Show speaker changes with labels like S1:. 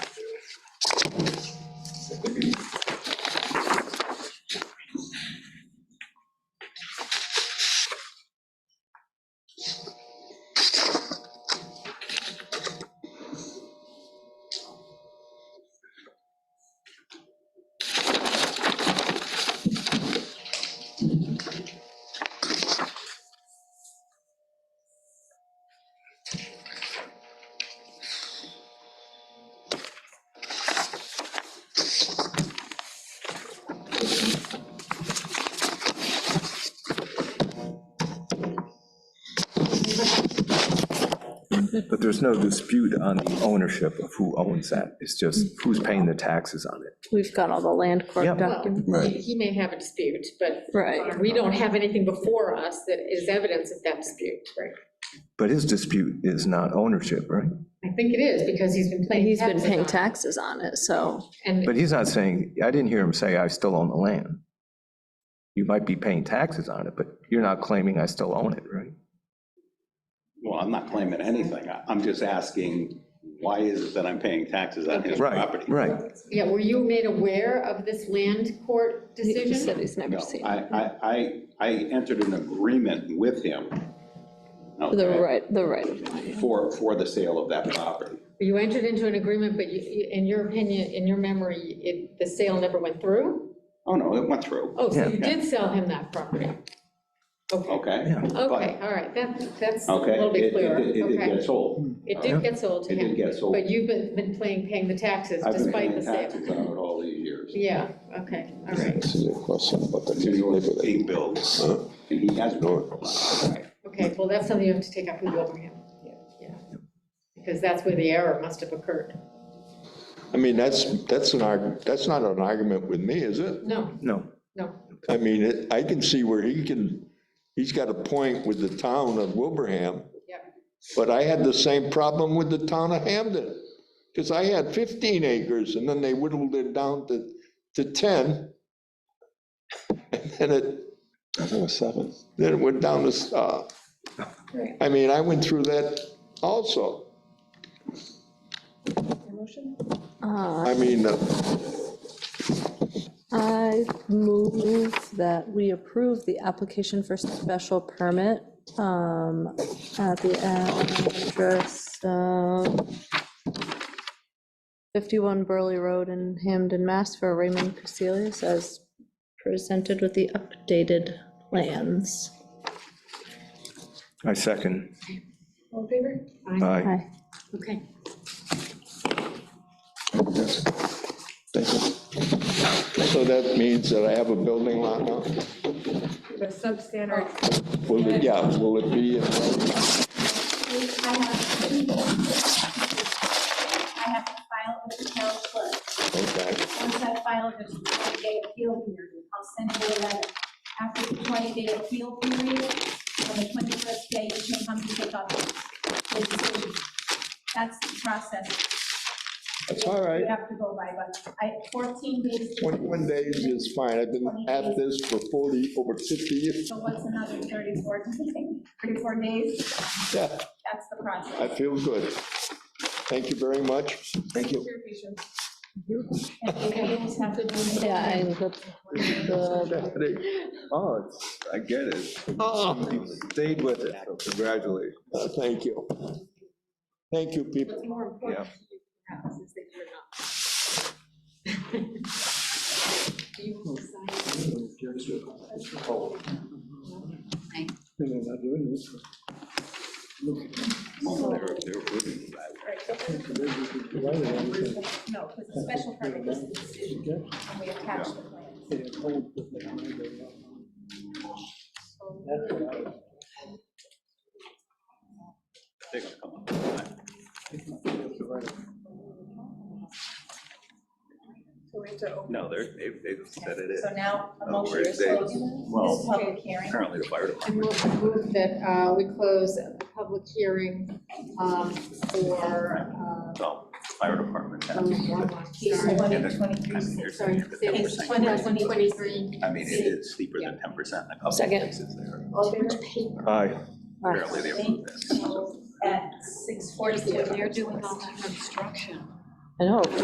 S1: But there's no dispute on the ownership of who owns that. It's just who's paying the taxes on it.
S2: We've got all the land
S1: Yeah.
S2: court documents.
S3: Well,
S4: Right.
S3: He may have a dispute, but
S2: Right.
S3: we don't have anything before us that is evidence of that dispute. Right.
S1: But his dispute is not ownership, right?
S3: I think it is, because he's been paying
S2: He's
S3: taxes.
S2: been paying
S3: on it.
S2: taxes on it, so,
S3: And,
S1: But he's not saying, I didn't hear him say, I still own the land. You might be paying taxes on it, but you're not claiming I still own it, right?
S5: Well, I'm not claiming anything. I- I'm just asking, why is it that I'm paying taxes on his
S1: Right,
S5: property?
S1: right.
S3: yeah, were you made aware of this land court
S2: he said
S3: decision?
S2: he's never
S5: No,
S2: seen.
S5: I, I, I, I entered an agreement with him.
S2: The
S5: okay,
S2: right, the right of way.
S5: For, for the sale of that property.
S3: You entered into an agreement, but you- you, in your opinion, in your memory, it, the sale never went through?
S5: Oh, no, it went through,
S3: Oh, so
S1: Yeah.
S3: you did sell him that property? Okay,
S5: okay?
S1: Yeah.
S3: okay, all right, that, that's a
S5: Oh, Okay,
S3: little
S5: it,
S3: bit clearer,
S5: it, it did
S3: okay.
S5: get sold.
S3: It did get sold to
S5: It
S3: him.
S5: did get sold.
S3: But you've been, been playing, paying the taxes
S5: I've been
S3: despite
S5: paying
S3: the
S5: taxes
S3: sale.
S5: on it all these years.
S3: Yeah, okay, all right,
S4: This is a question about the
S5: It's in
S4: neighbor
S5: order
S4: that,
S5: he builds,
S1: Uh,
S5: and he has.
S4: No.
S3: all right. Okay, well, that's something you have to take up with Wilbraham. Yeah. Because that's where the error must have occurred.
S4: I mean, that's, that's an arg, that's not an argument with me, is it?
S3: No,
S1: No,
S3: no,
S4: I mean, it- I can see where he can, he's got a point with the town of Wilbraham,
S3: yeah,
S4: but I had the same problem with the town of Hamden. Because I had 15 acres and then they whittled it down to, to 10. And then it,
S6: I think it was seven.
S4: then it went down to, uh,
S3: Right.
S4: I mean, I went through that also.
S2: Uh,
S4: I mean, uh,
S2: I move that we approve the application for special permit um, at the address of 51 Burley Road in Hamden, Mass. for Raymond Casilius as presented with the updated plans.
S1: I second.
S3: All in favor? Aye.
S1: Aye.
S2: Hi.
S3: Okay.
S4: Thank you. So that means that I have a building lot now?
S7: The substandard,
S4: Will it, yeah, will it be, uh,
S8: I have to leave. I have to file with the town clerk.
S4: okay,
S8: Once I file, there's a 20-day appeal period. I'll send you a letter. After the 20-day appeal period, on the 21st day, you can come to pick up the decision. That's the process.
S4: that's all
S8: You
S4: right.
S8: have to go by, but I, 14 days.
S4: 21 days is fine. I've been at this for 40, over 50 years.
S8: So what's another 34, 34 days?
S4: Yeah,
S8: That's the process.
S4: I feel good. Thank you very much. Thank you.
S8: And we always have to do it.
S2: Yeah, and the, the
S1: Oh, it's- I get it.
S4: Oh,
S1: You Stayed with it, so congratulations.
S4: uh, Thank you. Thank you, people.
S3: What's more important to you perhaps is that you're not. Do you sign?
S8: No, because the special permit is the decision, and we attach the plans.
S7: so we have to open
S9: No, they're, they, they said it is.
S8: So now, a
S9: Oh,
S8: motion
S9: where
S8: to
S9: is it?
S8: close this
S9: Well-
S8: public hearing.
S9: Apparently the fire
S3: I move move that uh, we close the public hearing um, for, uh,
S9: department, fire department.
S3: oh, wrong one, sorry.
S9: Yeah,
S8: Twenty-three,
S9: I mean, there's
S3: Sorry,
S9: ten percent.
S3: 2023.
S9: I mean, it is steeper than ten percent in a couple of
S2: Second.
S9: places there.
S3: All in favor?
S1: Aye.
S9: Apparently they approved this.
S8: at six forty-two.
S3: You're doing all that construction.
S2: I know,